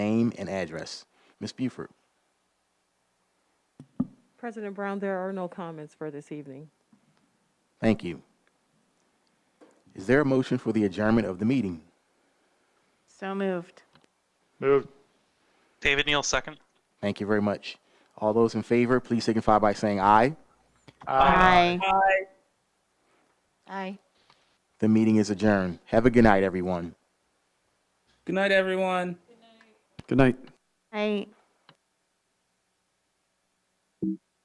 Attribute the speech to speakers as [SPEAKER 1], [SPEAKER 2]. [SPEAKER 1] Name and address. Ms. Buford.
[SPEAKER 2] President Brown, there are no comments for this evening.
[SPEAKER 1] Thank you. Is there a motion for the adjournment of the meeting?
[SPEAKER 3] So moved.
[SPEAKER 4] Moved.
[SPEAKER 5] David Neal, second.
[SPEAKER 1] Thank you very much. All those in favor, please signify by saying aye.
[SPEAKER 3] Aye. Aye.
[SPEAKER 1] The meeting is adjourned. Have a good night, everyone.
[SPEAKER 6] Good night, everyone.
[SPEAKER 4] Good night.
[SPEAKER 3] Aye.